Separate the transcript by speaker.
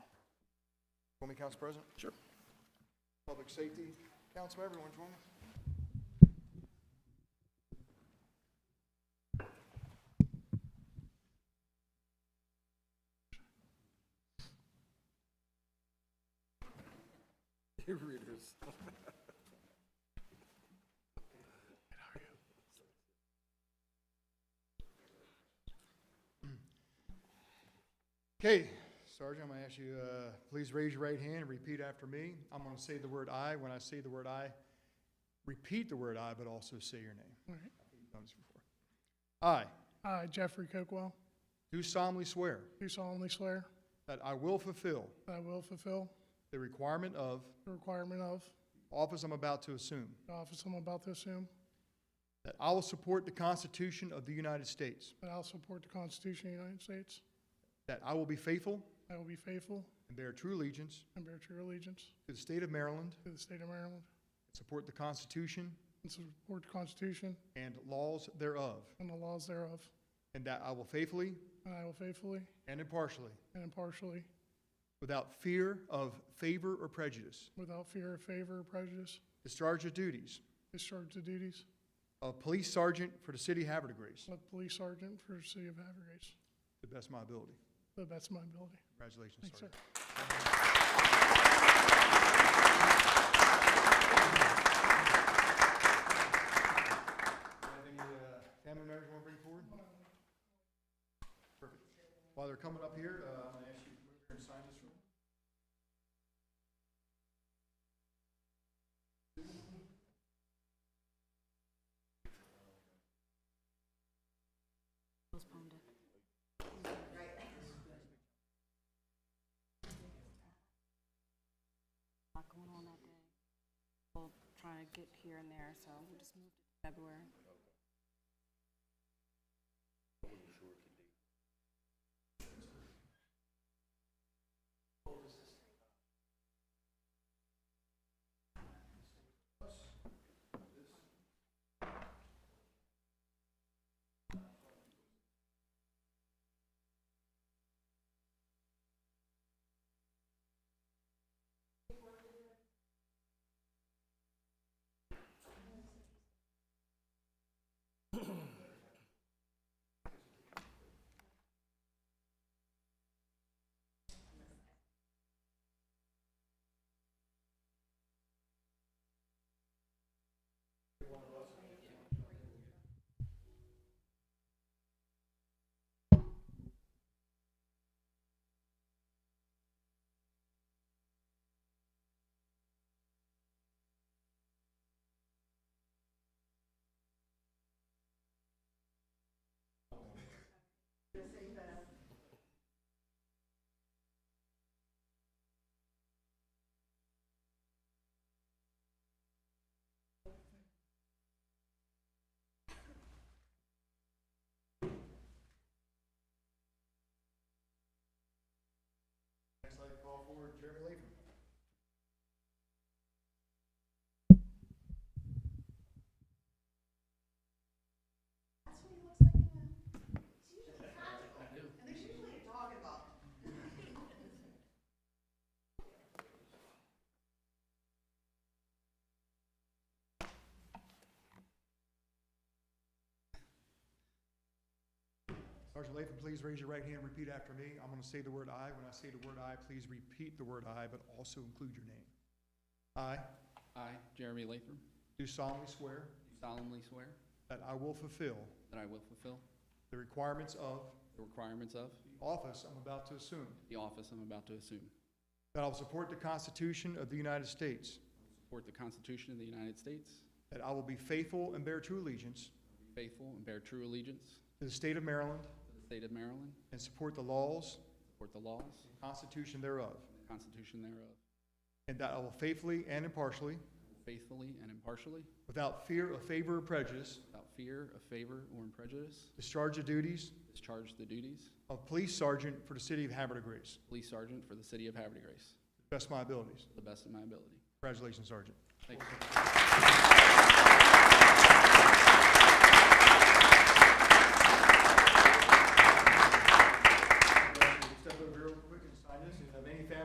Speaker 1: Want me, Council President?
Speaker 2: Sure.
Speaker 1: Public Safety, Council, everyone, join me. Okay, Sergeant, I'm gonna ask you, uh, please raise your right hand and repeat after me. I'm gonna say the word "I." When I say the word "I," repeat the word "I," but also say your name.
Speaker 3: All right.
Speaker 1: You've done this before. I
Speaker 3: I, Jeffrey Cookwell,
Speaker 1: do solemnly swear
Speaker 3: do solemnly swear
Speaker 1: that I will fulfill
Speaker 3: that I will fulfill
Speaker 1: the requirement of
Speaker 3: the requirement of
Speaker 1: the office I'm about to assume,
Speaker 3: the office I'm about to assume,
Speaker 1: that I will support the Constitution of the United States,
Speaker 3: that I'll support the Constitution of the United States,
Speaker 1: that I will be faithful
Speaker 3: I will be faithful
Speaker 1: and bear true allegiance
Speaker 3: and bear true allegiance
Speaker 1: to the state of Maryland,
Speaker 3: to the state of Maryland,
Speaker 1: support the Constitution
Speaker 3: and support the Constitution
Speaker 1: and laws thereof,
Speaker 3: and the laws thereof,
Speaker 1: and that I will faithfully
Speaker 3: and I will faithfully
Speaker 1: and impartially
Speaker 3: and impartially,
Speaker 1: Without fear of favor or prejudice.
Speaker 3: without fear of favor or prejudice,
Speaker 1: Discharge the duties
Speaker 3: discharge the duties
Speaker 1: of police sergeant for the city of Havertide Grace
Speaker 3: of police sergeant for the city of Havertide,
Speaker 1: to the best of my ability.
Speaker 3: to the best of my ability.
Speaker 1: Congratulations,
Speaker 3: Thanks, sir.
Speaker 1: Sergeant. Do you have any uh, family members you want to bring forward? Perfect. While they're coming up here, uh, I'm going to ask you to move here and sign this one.
Speaker 4: postponed it. Lot going on that day. We'll try to get here and there, so we just moved it to February.
Speaker 1: Next, I'd like to call forward Jeremy Latham. Sergeant Latham, please raise your right hand and repeat after me. I'm going to say the word "I." When I say the word "I," please repeat the word "I," but also include your name. I
Speaker 5: I, Jeremy Latham,
Speaker 1: do solemnly swear
Speaker 5: do solemnly swear
Speaker 1: that I will fulfill
Speaker 5: that I will fulfill
Speaker 1: the requirements of
Speaker 5: the requirements of
Speaker 1: the office I'm about to assume,
Speaker 5: the office I'm about to assume,
Speaker 1: that I will support the Constitution of the United States,
Speaker 5: support the Constitution of the United States,
Speaker 1: that I will be faithful and bear true allegiance
Speaker 5: be faithful and bear true allegiance
Speaker 1: to the state of Maryland,
Speaker 5: to the state of Maryland,
Speaker 1: and support the laws
Speaker 5: support the laws
Speaker 1: and Constitution thereof,
Speaker 5: and the Constitution thereof,
Speaker 1: and that I will faithfully and impartially,
Speaker 5: faithfully and impartially,
Speaker 1: without fear of favor or prejudice,
Speaker 5: without fear of favor or prejudice,
Speaker 1: discharge the duties
Speaker 5: discharge the duties
Speaker 1: of police sergeant for the city of Havertide Grace.
Speaker 5: of police sergeant for the city of Havertide Grace
Speaker 1: Best of my abilities.
Speaker 5: to the best of my ability.
Speaker 1: Congratulations, Sergeant.
Speaker 5: Thank you.